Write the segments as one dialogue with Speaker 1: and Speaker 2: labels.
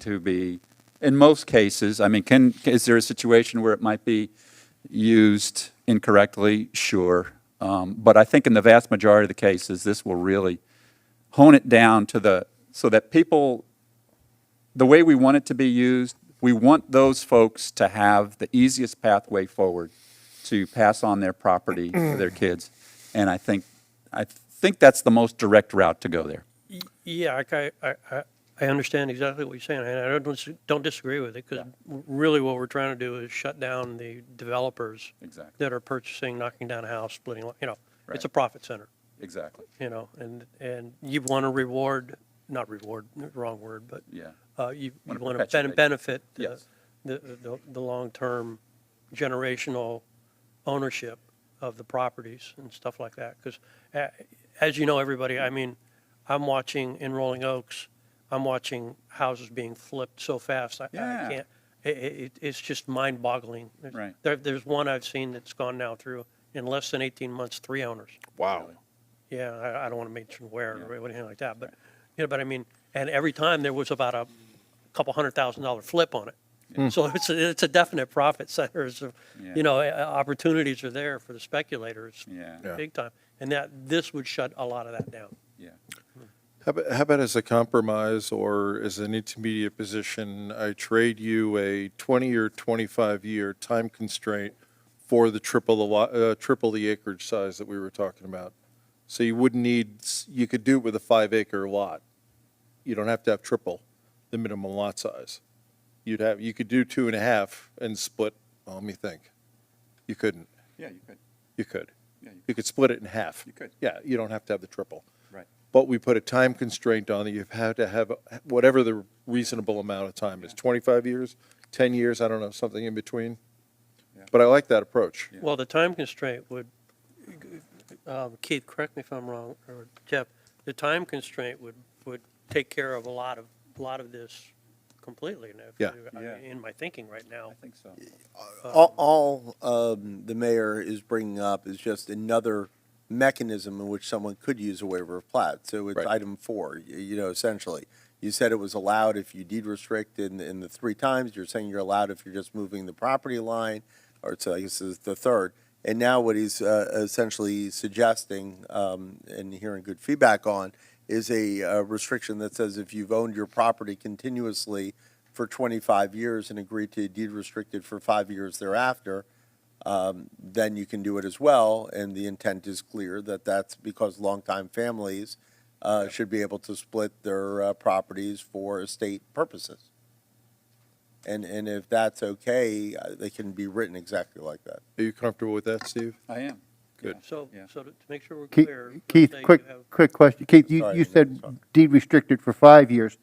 Speaker 1: to be, in most cases, I mean, can, is there a situation where it might be used incorrectly? Sure. Um, But I think in the vast majority of the cases, this will really hone it down to the, so that people, the way we want it to be used, we want those folks to have the easiest pathway forward to pass on their property to their kids. And I think, I think that's the most direct route to go there.
Speaker 2: Y- Yeah, I ki- I, I, I understand exactly what you're saying, and I don't, dis- don't disagree with it, because really what we're trying to do is shut down the developers
Speaker 1: Exactly.
Speaker 2: that are purchasing, knocking down a house, splitting, lot- you know, it's a
Speaker 1: Right.
Speaker 2: profit center,
Speaker 1: Exactly,
Speaker 2: you know, and, and you want to reward, not reward, wrong word, but
Speaker 1: yeah.
Speaker 2: uh, you
Speaker 1: Wanna
Speaker 2: want to
Speaker 1: perpetuate.
Speaker 2: benefit the,
Speaker 1: Yes.
Speaker 2: the, the- the long-term generational ownership of the properties and stuff like that. Because as you know, everybody, I mean, I'm watching in Rolling Oaks, I'm watching houses being flipped so fast. I- I
Speaker 1: Yeah.
Speaker 2: can't, i- i- it, it's just mind-boggling. There's-
Speaker 1: Right.
Speaker 2: There, there's one I've seen that's gone now through, in less than 18 months, three owners.
Speaker 3: Wow.
Speaker 2: Yeah, I, I don't want to mention where
Speaker 1: Yeah.
Speaker 2: or anything like that, but, you know, but I mean, and every time there was about a couple hundred thousand dollar flip on it. So it's, a- it's a definite profit center, It's a-
Speaker 1: Yeah.
Speaker 2: you know, uh, opportunities are there for the speculators,
Speaker 1: Yeah.
Speaker 3: Yeah.
Speaker 2: big time. And that, this would shut a lot of that down.
Speaker 1: Yeah.
Speaker 3: How about, how about as a compromise or as an intermediate position, I trade you a 20 or 25 year time constraint for the triple the lot, uh, triple the acreage size that we were talking about. So you wouldn't need, s- you could do it with a five acre lot. You don't have to have triple the minimum lot size. You'd have, you could do two and a half and split, well, let me think. You couldn't,
Speaker 1: Yeah, you could,
Speaker 3: you could.
Speaker 1: Yeah, you
Speaker 3: You could split it in half.
Speaker 1: You could.
Speaker 3: Yeah, you don't have to have the triple
Speaker 1: right.
Speaker 3: but we put a time constraint on that you have to have whatever the reasonable amount of time is, 25 years, 10 years, I don't know, something in between.
Speaker 1: Yeah.
Speaker 3: But I like that approach.
Speaker 1: Yeah.
Speaker 2: Well, the time constraint would, um, Keith, correct me if I'm wrong, or Jeff, the time constraint would, would take care of a lot of, a lot of this completely. And if
Speaker 3: Yeah.
Speaker 2: you- I
Speaker 1: Yeah.
Speaker 2: mean, In my thinking right now.
Speaker 1: I think so.
Speaker 4: All, all um, the mayor is bringing up is just another mechanism in which someone could use a waiver of plat. So it's
Speaker 3: Right.
Speaker 4: item four, y- you know, essentially. You said it was allowed if you deed restrict in, in the three times. You're saying you're allowed if you're just moving the property line, or it's, I guess, is the third. And now what he's uh, essentially suggesting, um, and hearing good feedback on, is a uh, restriction that says if you've owned your property continuously for 25 years and agreed to deed restricted for five years thereafter, um, then you can do it as well. And the intent is clear that that's because longtime families uh, should be able to split their uh, properties for estate purposes. And, and if that's okay, uh, they can be written exactly like that.
Speaker 3: Are you comfortable with that, Steve?
Speaker 1: I am.
Speaker 3: Good.
Speaker 2: So,
Speaker 1: Yeah.
Speaker 2: so to to make sure we're
Speaker 5: Keith,
Speaker 2: clear. let's
Speaker 5: Keith,
Speaker 2: say you
Speaker 5: quick,
Speaker 2: have-
Speaker 5: quick question. Keith, you,
Speaker 4: Sorry,
Speaker 5: you
Speaker 4: Jim,
Speaker 5: said
Speaker 4: sorry.
Speaker 5: deed restricted for five years.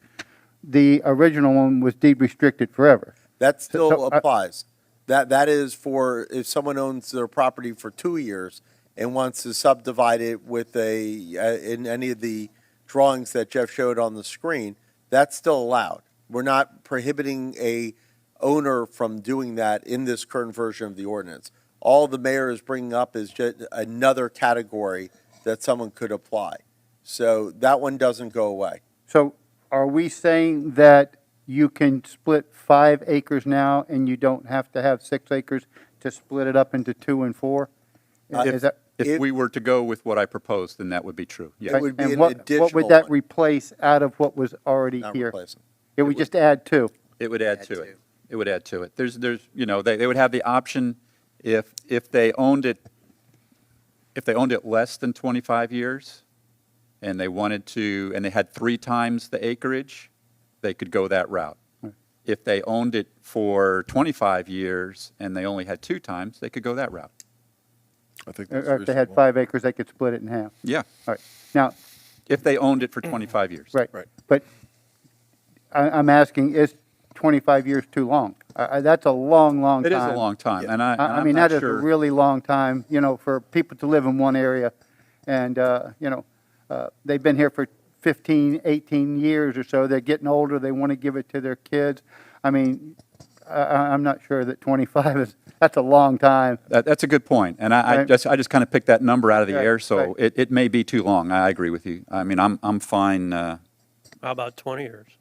Speaker 5: The original one was deed restricted forever.
Speaker 4: That
Speaker 5: so uh,
Speaker 4: still
Speaker 5: I-
Speaker 4: applies. That, that is for, if someone owns their property for two years and wants to subdivide it with a, uh, in any of the drawings that Jeff showed on the screen, that's still allowed. We're not prohibiting a owner from doing that in this current version of the ordinance. All the mayor is bringing up is just another category that someone could apply. So that one doesn't go away.
Speaker 5: So are we saying that you can split five acres now and you don't have to have six acres to split it up into two and four? Is that,
Speaker 1: If
Speaker 4: Uh, If-
Speaker 1: we were to go with what I proposed, then that would be true, yes.
Speaker 4: It would be
Speaker 5: and
Speaker 4: an
Speaker 5: what, what
Speaker 4: additional
Speaker 5: would that
Speaker 4: one.
Speaker 5: replace out of what was already
Speaker 4: Not
Speaker 5: here?
Speaker 4: replacing.
Speaker 5: It would just add two.
Speaker 1: It would add to it. It would add to it. There's, there's, you know, they, they would have the option if, if they owned it, if they owned it less than 25 years and they wanted to, and they had three times the acreage, they could go that route. If they owned it for 25 years and they only had two times, they could go that route.
Speaker 3: I think that's
Speaker 5: Or if they had
Speaker 3: reasonable.
Speaker 5: five acres, they could split it in half.
Speaker 1: Yeah,
Speaker 5: All right. Now,
Speaker 1: if they owned it for 25 years.
Speaker 5: Right.
Speaker 3: Right.
Speaker 5: But I, I'm asking, is 25 years too long? I, I, that's a long, long
Speaker 1: It
Speaker 5: time.
Speaker 1: is a long time, and I, and
Speaker 5: I, I
Speaker 1: I'm
Speaker 5: mean,
Speaker 1: not
Speaker 5: that is a
Speaker 1: sure-
Speaker 5: really long time, you know, for people to live in one area. And, uh, you know, uh, they've been here for 15, 18 years or so. They're getting older. They want to give it to their kids. I mean, I, I- I'm not sure that 25 is, that's a long time.
Speaker 1: That, that's a good point, and I, I
Speaker 5: Right.
Speaker 1: just, I just kind of picked that number out of the
Speaker 5: Right,
Speaker 1: air, so
Speaker 5: right.
Speaker 1: it, it may be too long, I agree with you. I mean, I'm, I'm fine, uh,
Speaker 2: How about 20 years?